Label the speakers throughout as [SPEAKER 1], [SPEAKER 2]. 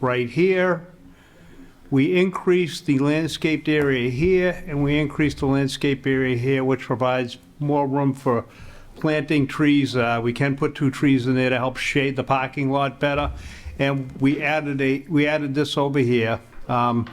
[SPEAKER 1] right here. We increased the landscaped area here, and we increased the landscape area here, which provides more room for planting trees. Uh, We can put two trees in there to help shade the parking lot better. And we added a, we added this over here. Um,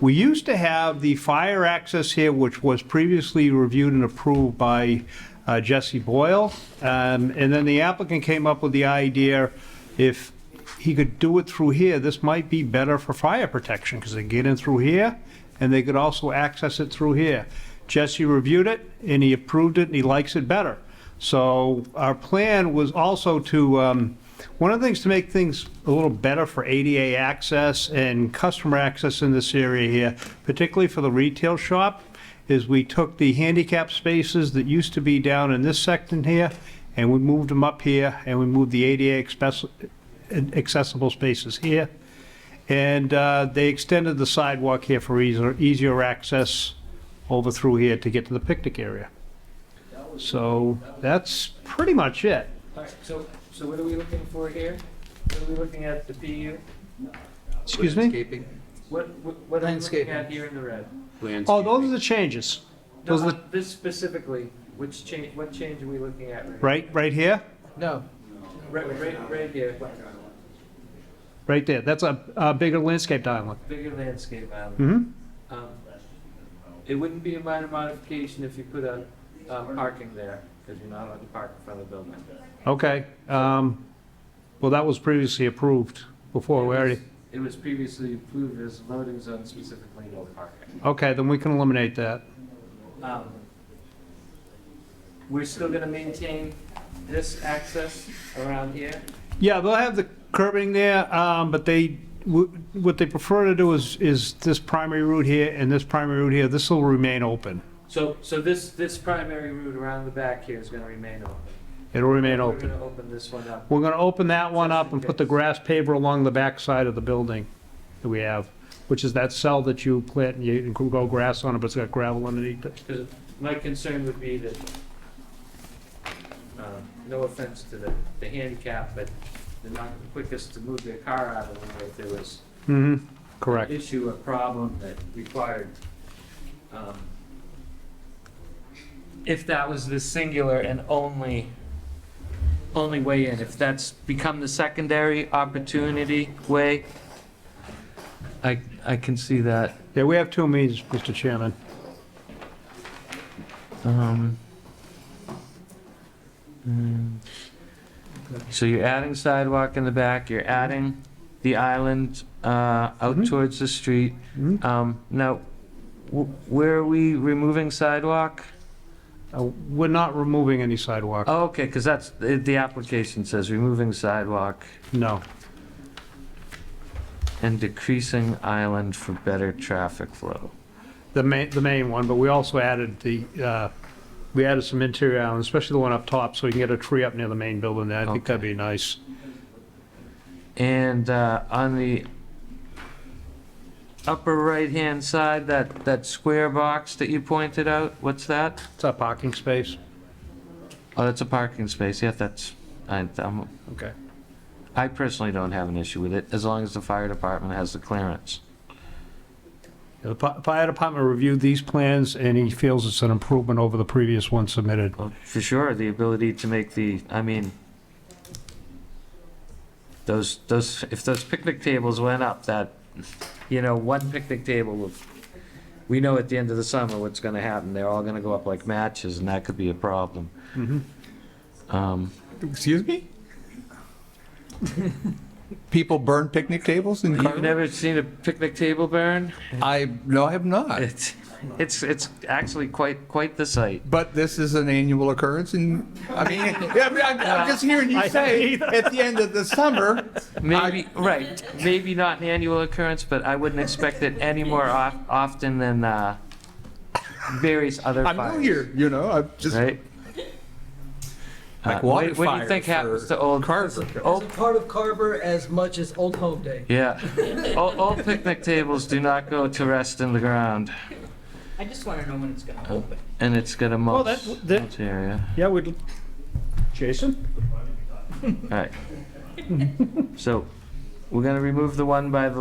[SPEAKER 1] We used to have the fire access here, which was previously reviewed and approved by uh, Jesse Boyle. Um, And then the applicant came up with the idea, if he could do it through here, this might be better for fire protection, because they get in through here, and they could also access it through here. Jesse reviewed it, and he approved it, and he likes it better. So our plan was also to, um, one of the things to make things a little better for ADA access and customer access in this area here, particularly for the retail shop, is we took the handicap spaces that used to be down in this section here, and we moved them up here, and we moved the ADA express- accessible spaces here. And uh, they extended the sidewalk here for easier, easier access over through here to get to the picnic area. So that's pretty much it.
[SPEAKER 2] All right, so, so what are we looking for here? What are we looking at, the PU?
[SPEAKER 1] Excuse me?
[SPEAKER 3] Landscaping.
[SPEAKER 2] What, what what are we looking
[SPEAKER 3] Landscaping.
[SPEAKER 2] at here in the red?
[SPEAKER 1] Oh, those are the changes.
[SPEAKER 2] No, uh,
[SPEAKER 1] Those are the,
[SPEAKER 2] this specifically, which change, what change are we looking at right
[SPEAKER 1] right, right here,
[SPEAKER 3] No,
[SPEAKER 2] here? Right, right, right here,
[SPEAKER 1] right there. That's a, a bigger landscaped island.
[SPEAKER 2] bigger landscape island.
[SPEAKER 1] Mm-hmm.
[SPEAKER 2] Um, It wouldn't be a minor modification if you put a, um, parking there, because you're not allowed to park in front of the building.
[SPEAKER 1] Okay. Um, well, that was previously approved before we
[SPEAKER 2] It
[SPEAKER 1] already,
[SPEAKER 2] was- It was previously approved as loading zone specifically no parking.
[SPEAKER 1] okay, then we can eliminate that.
[SPEAKER 2] Um, We're still gonna maintain this access around here?
[SPEAKER 1] Yeah, they'll have the curbing there, um, but they, wh- what they prefer to do is, is this primary route here and this primary route here, this will remain open.
[SPEAKER 2] So, so this, this primary route around the back here is gonna remain open?
[SPEAKER 1] It'll remain
[SPEAKER 2] We're
[SPEAKER 1] open.
[SPEAKER 2] gonna open this one up.
[SPEAKER 1] We're gonna open that one up and put the grass paver along the backside of the building that we have, which is that cell that you plant and you can grow grass on it, but it's got gravel underneath it.
[SPEAKER 2] Because my concern would be that, um, no offense to the, the handicap, but they're not the quickest to move their car out of the way if there was
[SPEAKER 1] Mm-hmm, correct.
[SPEAKER 2] issue, a problem that required, um, if that was the singular and only, only way in, if that's become the secondary opportunity way, I, I can see that.
[SPEAKER 1] Yeah, we have two meetings, Mr. Chairman.
[SPEAKER 2] Um, mm. So you're adding sidewalk in the back, you're adding the island uh, out
[SPEAKER 1] Mhm.
[SPEAKER 2] towards the street.
[SPEAKER 1] Mhm.
[SPEAKER 2] Um, Now, w- where are we removing sidewalk?
[SPEAKER 1] Uh, we're not removing any sidewalk,
[SPEAKER 2] Oh, okay, because that's, the the application says removing sidewalk
[SPEAKER 1] no.
[SPEAKER 2] and decreasing island for better traffic flow.
[SPEAKER 1] the main, the main one, but we also added the, uh, we added some interior islands, especially the one up top, so we can get a tree up near the main building there. I think that'd be nice.
[SPEAKER 2] And uh, on the upper right-hand side, that, that square box that you pointed out, what's that?
[SPEAKER 1] It's our parking space.
[SPEAKER 2] Oh, that's a parking space, yeah, that's, I, I'm,
[SPEAKER 1] Okay.
[SPEAKER 2] I personally don't have an issue with it, as long as the fire department has the clearance.
[SPEAKER 1] The fi- fire department reviewed these plans, and he feels it's an improvement over the previous one submitted.
[SPEAKER 2] Well, For sure, the ability to make the, I mean, those, those, if those picnic tables went up, that, you know, one picnic table would, we know at the end of the summer what's gonna happen, they're all gonna go up like matches, and that could be a problem. Um,
[SPEAKER 3] excuse me? People burn picnic tables in
[SPEAKER 2] You've
[SPEAKER 3] Carver?
[SPEAKER 2] never seen a picnic table burn?
[SPEAKER 3] I, no, I have not.
[SPEAKER 2] It's, it's, it's actually quite, quite the sight.
[SPEAKER 3] But this is an annual occurrence and, I mean, I mean, I'm I'm just hearing you say, at the end of the summer,
[SPEAKER 2] Maybe, right, maybe not an annual occurrence, but I wouldn't expect it any more of- often than uh, various other fires.
[SPEAKER 3] I'm new here, you know, I'm just,
[SPEAKER 2] Right?
[SPEAKER 3] Like
[SPEAKER 2] Uh,
[SPEAKER 3] water
[SPEAKER 2] what- What do you
[SPEAKER 3] fires
[SPEAKER 2] think happens
[SPEAKER 3] or
[SPEAKER 2] to old?
[SPEAKER 3] Carver.
[SPEAKER 4] It's a
[SPEAKER 2] Old,
[SPEAKER 4] part of Carver as much as Old Home Day.
[SPEAKER 2] yeah, old old picnic tables do not go to rest in the ground,
[SPEAKER 5] I just want to know when it's going to open.
[SPEAKER 2] and it's gonna
[SPEAKER 1] Well,
[SPEAKER 2] mulch,
[SPEAKER 1] that- that-
[SPEAKER 2] mulch area.
[SPEAKER 1] Yeah, we'd, Jason?
[SPEAKER 2] All right. So, We're gonna remove the one by the